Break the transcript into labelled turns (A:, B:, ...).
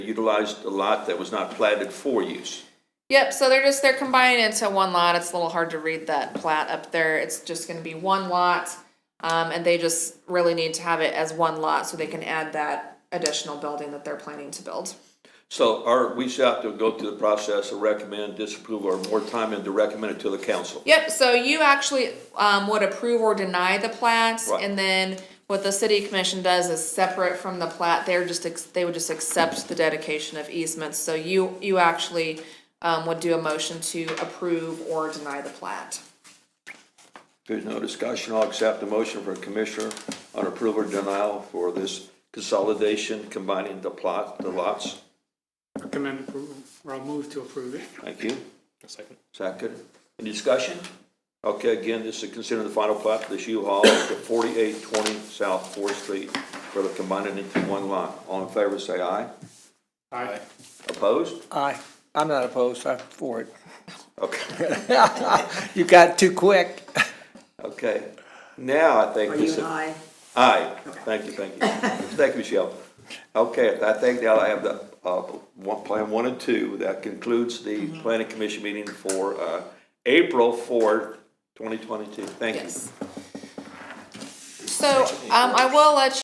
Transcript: A: utilized a lot that was not platted for use.
B: Yep, so they're just, they're combined into one lot. It's a little hard to read that plat up there. It's just gonna be one lot. Um, and they just really need to have it as one lot so they can add that additional building that they're planning to build.
A: So our, we should have to go through the process of recommend, disapprove, or more time and to recommend it to the council.
B: Yep, so you actually, um, would approve or deny the plat,
A: Right.
B: and then what the city commission does is separate from the plat, they're just, ex- they would just accept the dedication of easements, so you, you actually, um, would do a motion to approve or deny the plat.
A: If there's no discussion, I'll accept the motion for a commissioner on approval or denial for this consolidation, combining the plot, the lots.
C: Recommend approval, or I'll move to approve it.
A: Thank you.
C: A second.
A: Second. Any discussion? Okay, again, this is considering the final plat for this U-Haul at forty-eight twenty South Fourth Street, where they're combining into one lot. All in favor, say aye.
C: Aye.
A: Opposed?
D: Aye. I'm not opposed, I'm for it.
A: Okay.
D: You got too quick.
A: Okay, now I think this is.
E: I?
A: Aye, thank you, thank you. Thank you, Michelle. Okay, I think now I have the, uh, one, plan one and two. That concludes the planning commission meeting for, uh, April fourth, twenty twenty-two. Thank you.
B: Yes. So, um, I will let you.